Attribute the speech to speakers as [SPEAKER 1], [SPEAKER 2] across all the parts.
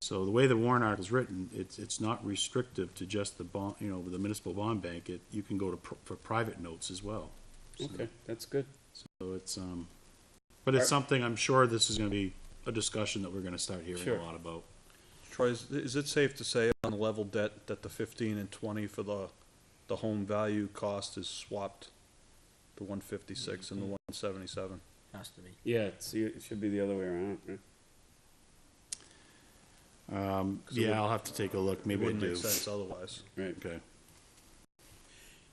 [SPEAKER 1] So the way the warrant article is written, it's, it's not restrictive to just the bond, you know, the municipal bond bank. It, you can go to, pr- for private notes as well. So-
[SPEAKER 2] Okay, that's good.
[SPEAKER 1] So it's, um, but it's something, I'm sure this is gonna be a discussion that we're gonna start hearing
[SPEAKER 2] Sure.
[SPEAKER 1] a lot about.
[SPEAKER 3] Troy, is, is it safe to say on the level debt that the fifteen and twenty for the, the home value cost is swapped? The one fifty-six and the one seventy-seven?
[SPEAKER 4] has to be.
[SPEAKER 2] Yeah, it's, it should be the other way around. yeah.
[SPEAKER 1] Um,
[SPEAKER 3] 'Cause it would-
[SPEAKER 1] yeah, I'll have to take a look,
[SPEAKER 3] It
[SPEAKER 1] maybe I
[SPEAKER 3] wouldn't
[SPEAKER 1] do.
[SPEAKER 3] make sense otherwise.
[SPEAKER 2] Right.
[SPEAKER 1] Okay.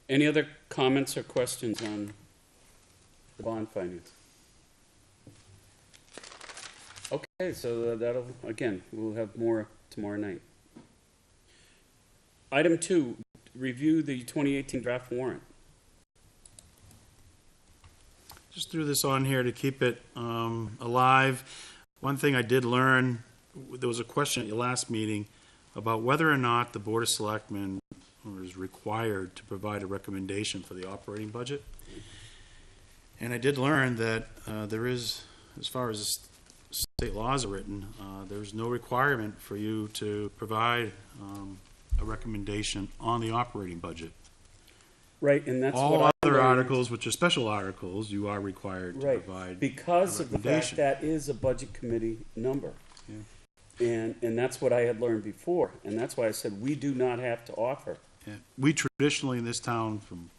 [SPEAKER 2] Any other comments or questions on the bond finance? Okay, so that'll, again, we'll have more tomorrow night. Item two, review the twenty eighteen draft warrant.
[SPEAKER 1] just threw this on here to keep it um, alive. One thing I did learn, there was a question at your last meeting about whether or not the Board of Selectmen was required to provide a recommendation for the operating budget. And I did learn that uh, there is, as far as the state laws are written, uh, there's no requirement for you to provide um, a recommendation on the operating budget.
[SPEAKER 2] Right, and that's what I.
[SPEAKER 1] All other
[SPEAKER 2] learned.
[SPEAKER 1] articles, which are special articles, you are required to
[SPEAKER 2] Right,
[SPEAKER 1] provide
[SPEAKER 2] because of the fact
[SPEAKER 1] recommendation.
[SPEAKER 2] that is a budget committee number. And, and that's what I had learned before, and that's why I said we do not have to offer.
[SPEAKER 1] Yeah. We traditionally in this town, from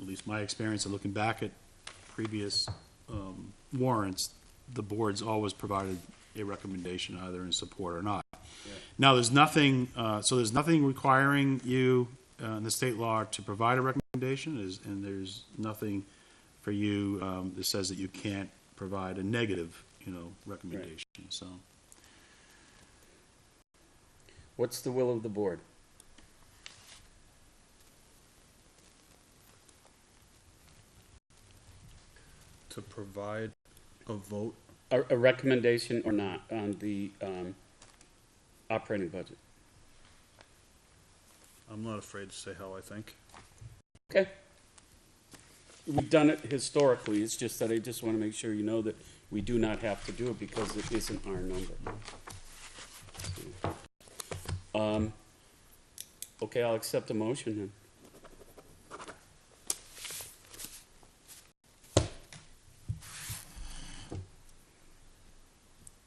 [SPEAKER 1] at least my experience of looking back at previous um, warrants, the board's always provided a recommendation either in support or not. Now, there's nothing, uh, so there's nothing requiring you uh, in the state law to provide a recommendation, is- and there's nothing for you um, that says that you can't provide a negative, you know, recommendation, so.
[SPEAKER 2] What's the will of the board?
[SPEAKER 3] To provide a vote,
[SPEAKER 2] A, a recommendation or not on the, um, operating budget?
[SPEAKER 3] I'm not afraid to say how I think.
[SPEAKER 2] Okay. We've done it historically, it's just that I just wanna make sure you know that we do not have to do it because it isn't our number. Um, okay, I'll accept a motion then.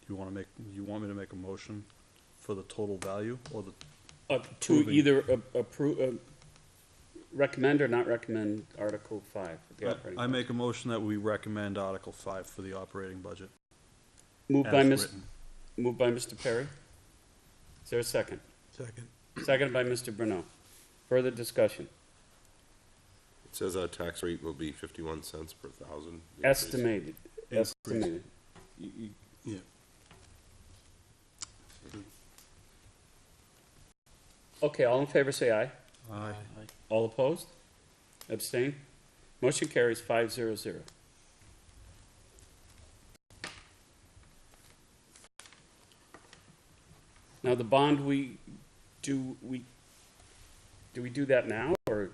[SPEAKER 3] You wanna make, you want me to make a motion for the total value or the,
[SPEAKER 2] Uh, to
[SPEAKER 3] Approving.
[SPEAKER 2] either approve, uh, recommend or not recommend Article five, the operating.
[SPEAKER 3] Uh, I make a motion that we recommend Article five for the operating budget.
[SPEAKER 2] Moved
[SPEAKER 3] as
[SPEAKER 2] by Ms.,
[SPEAKER 3] written.
[SPEAKER 2] moved by Mr. Perry. Is there a second? Second. Second by Mr. Bruno. Further discussion.
[SPEAKER 5] It says our tax rate will be fifty-one cents per thousand. increase.
[SPEAKER 2] Estimated,
[SPEAKER 3] Increase.
[SPEAKER 2] estimated. You- you-
[SPEAKER 1] Yeah.
[SPEAKER 2] Okay, all in favor, say aye.
[SPEAKER 3] Aye.
[SPEAKER 2] All opposed? Abstain? Motion carries five zero zero. Now, the bond, we, do we, do we do that now, or,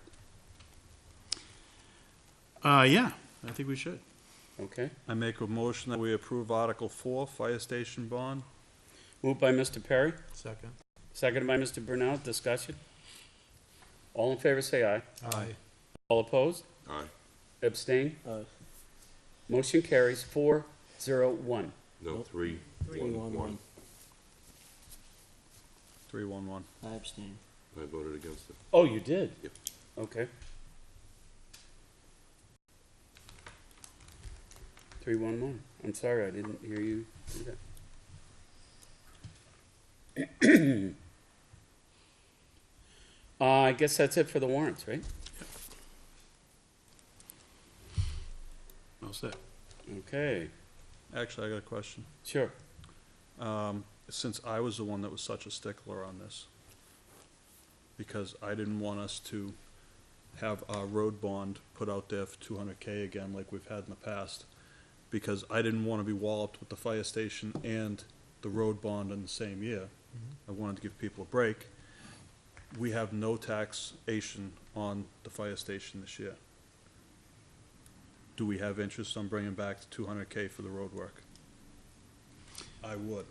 [SPEAKER 1] Uh, yeah, I think we should.
[SPEAKER 2] okay?
[SPEAKER 3] I make a motion that we approve Article four, fire station bond.
[SPEAKER 2] Moved by Mr. Perry? Second. Seconded by Mr. Brunel, discussion? All in favor, say aye.
[SPEAKER 6] Aye.
[SPEAKER 2] All opposed?
[SPEAKER 5] Aye,
[SPEAKER 2] Abstain?
[SPEAKER 5] Uh,
[SPEAKER 2] Motion carries four zero one.
[SPEAKER 5] no, three, one, one.
[SPEAKER 3] Three one one.
[SPEAKER 4] I abstain.
[SPEAKER 5] I voted against it.
[SPEAKER 2] Oh, you did?
[SPEAKER 5] Yep.
[SPEAKER 2] Okay. Three one one. I'm sorry, I didn't hear you do that. Uh, I guess that's it for the warrants, right?
[SPEAKER 1] All set.
[SPEAKER 2] Okay,
[SPEAKER 3] Actually, I got a question.
[SPEAKER 2] sure.
[SPEAKER 3] Um, since I was the one that was such a stickler on this, because I didn't want us to have our road bond put out there for two hundred K again like we've had in the past, because I didn't wanna be walloped with the fire station and the road bond in the same year. I wanted to give people a break. We have no taxation on the fire station this year. Do we have interest on bringing back the two hundred K for the road work? I would.